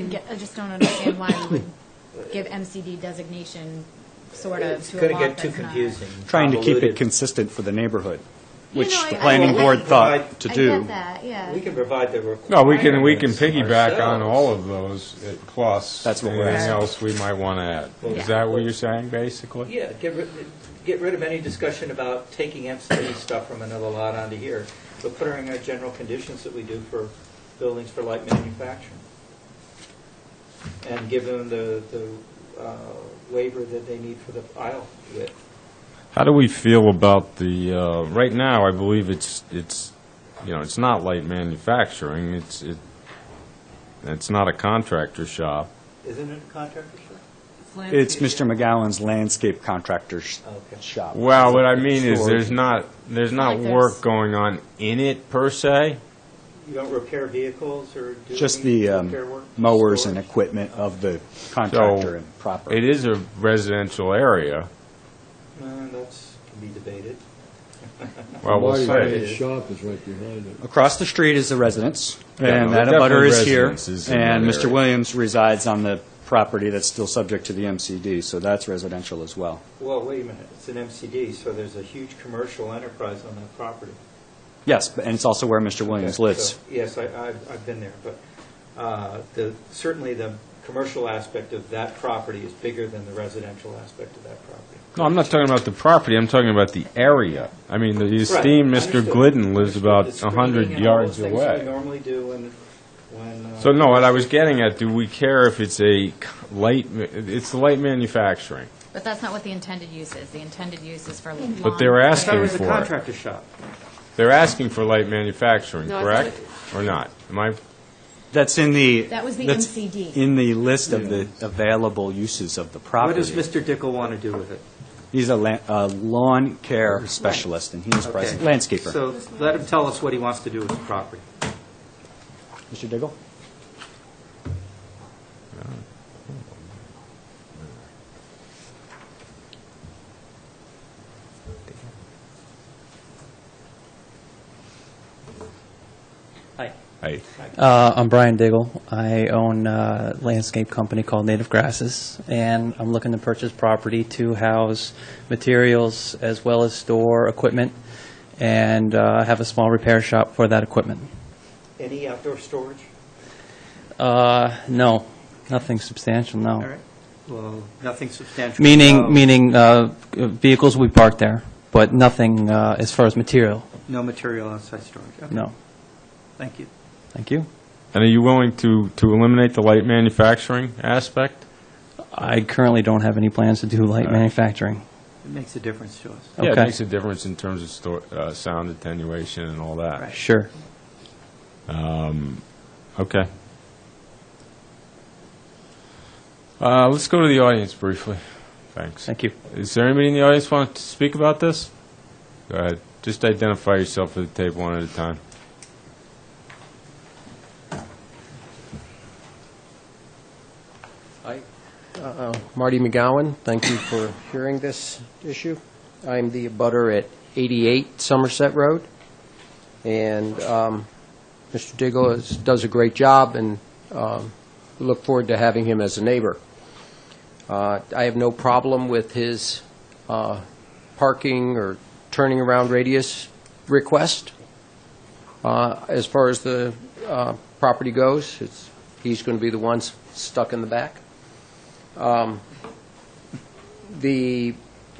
don't get, I just don't understand why we would give MCD designation, sort of, It's to a going to lot get that's too not. confusing. Trying to keep it convoluted. consistent for the neighborhood, No, which no, I- the I- planning I- board thought Right. to I do. get that, yeah. We can provide the requirements. Oh, No, we can, we can piggyback on ourselves. all of those, uh, plus That's what we're anything asking. else we might want to add. Is Yeah. that what you're saying, basically? Yeah, get rid, get rid of any discussion about taking MCD stuff from another lot onto here, but put her in our general conditions that we do for buildings for light manufacturing. And give them the, the uh, waiver that they need for the aisle width. How do we feel about the, uh, right now, I believe it's, it's, you know, it's not light manufacturing, it's, it, it's not a contractor shop. Isn't it a contractor shop? It's Mr. McGowan's landscape contractor's Okay. shop. Well, what I mean is, there's Storage. not, there's not Like there's- work going on in it, per se. You don't repair vehicles or do? Just any the repair work? um, mowers and Storage? equipment of the contractor and It property. is a residential area. Uh, That's, can be debated. Well, we'll Right. say. say. shop is right behind it. Across the street is the residence, Yeah, and no, that definitely abutter is here. residence is in And that Mr. area. Williams resides on the property that's still subject to the MCD, so that's residential as well. Well, wait a minute, it's an MCD, so there's a huge commercial enterprise on that property. Yes, but- and it's also where Mr. Williams Okay, lives. so- Yes, I, I've, I've been there, but, uh, the, certainly the commercial aspect of that property is bigger than the residential aspect of that property. No, I'm not talking about the property, I'm talking about the area. I mean, the esteemed Mr. Understood. Glidden lives about The a screening 100 and all yards those things that we away. normally do when, when. uh, So, no, what I was getting at, do we care if it's a c- light, ma- it's light manufacturing? But that's not what the intended use is. The intended use is for lawn. But they're I thought it asking was a for it. contractor shop. They're asking for light manufacturing, No, I correct? Or not? Am I, That's in the. That was the that's MCD. In the list of the available uses of the What property. does Mr. Dickel want to do with it? He's a la- a lawn care specialist, and he is present, Okay. landscaper. So let him tell us what he wants to do with the property. Mr. Diggle? Hi. I- Uh, I'm Brian Diggle. I own a landscape company called Native Grasses, and I'm looking to purchase property to house materials as well as store equipment and uh, have a small repair shop for that equipment. Any outdoor storage? Uh, no, nothing substantial, no. All right. Oh. Well, nothing substantial. No- Meaning, meaning uh, vehicles we park there, but nothing uh, as far as material, No material outside storage. Okay. no. Thank you. Thank you. and are you willing to, to eliminate the light manufacturing aspect? I currently don't have any plans to do light manufacturing. It makes a difference to us. Yeah, it Okay. makes a difference in terms of sto- uh, sound attenuation and all that. Sure. Okay. Uh, Let's go to the audience briefly. Thanks. Thank you. Is there anybody in the audience want to speak about this? Go ahead. Just identify yourself for the tape one at a time. Marty McGowan, thank you for hearing this issue. I'm the abutter at 88 Somerset Road, and um, Mr. Diggle is- does a great job, and um, we look forward to having him as a neighbor. Uh, I have no problem with his uh, parking or turning around radius request. Uh, As far as the uh, property goes, it's- he's going to be the one s- stuck in the back. Um, The,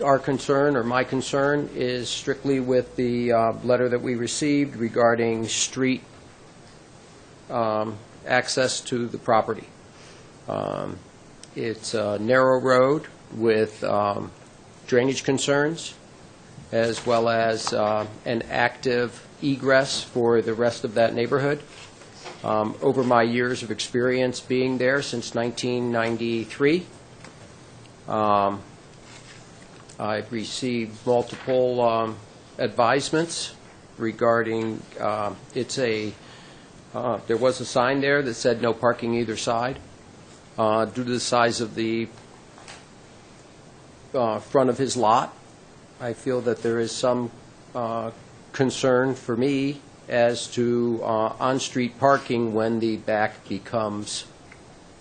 our concern, or my concern, is strictly with the uh, letter that we received regarding street um, access to the property. Um, It's a narrow road with um, drainage concerns, as well as uh, an active egress for the rest of that neighborhood. Um, Over my years of experience being there since 1993, um, I've received multiple um, advisements regarding, um, it's a, uh, there was a sign there that said no parking either side. Uh, Due to the size of the uh, front of his lot, I feel that there is some uh, concern for me as to uh, on-street parking when the back becomes